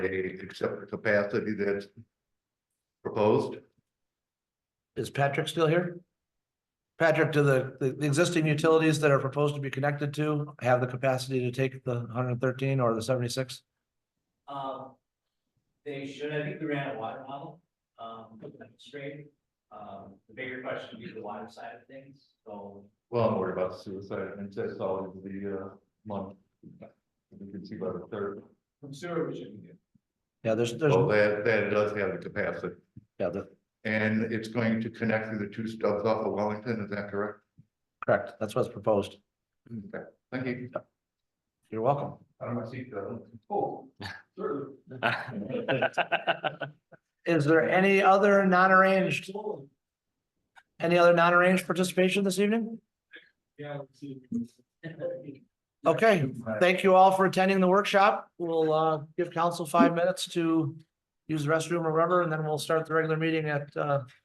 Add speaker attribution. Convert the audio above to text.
Speaker 1: a accepted capacity that's proposed?
Speaker 2: Is Patrick still here? Patrick, do the, the the existing utilities that are proposed to be connected to have the capacity to take the hundred and thirteen or the seventy-six?
Speaker 3: Um, they should, I think we ran a water model, um, straight. Um, the bigger question would be the water side of things, so,
Speaker 1: Well, I'm worried about suicide, and that's all in the uh month. You can see by the third,
Speaker 4: From sewer, we should be good.
Speaker 2: Yeah, there's, there's,
Speaker 1: so that that does have the capacity.
Speaker 2: yeah, the,
Speaker 1: And it's going to connect through the two stubs off of Wellington, is that correct?
Speaker 2: correct, that's what's proposed.
Speaker 1: Okay, Thank you.
Speaker 2: You're welcome.
Speaker 1: I don't see uh, the.
Speaker 4: Oh, sure.
Speaker 2: Is there any other non-arranged? Any other non-arranged participation this evening?
Speaker 4: Yeah, let's see.
Speaker 2: Okay, thank you all for attending the workshop. We'll uh give council five minutes to use the restroom or wherever, and then we'll start the regular meeting at uh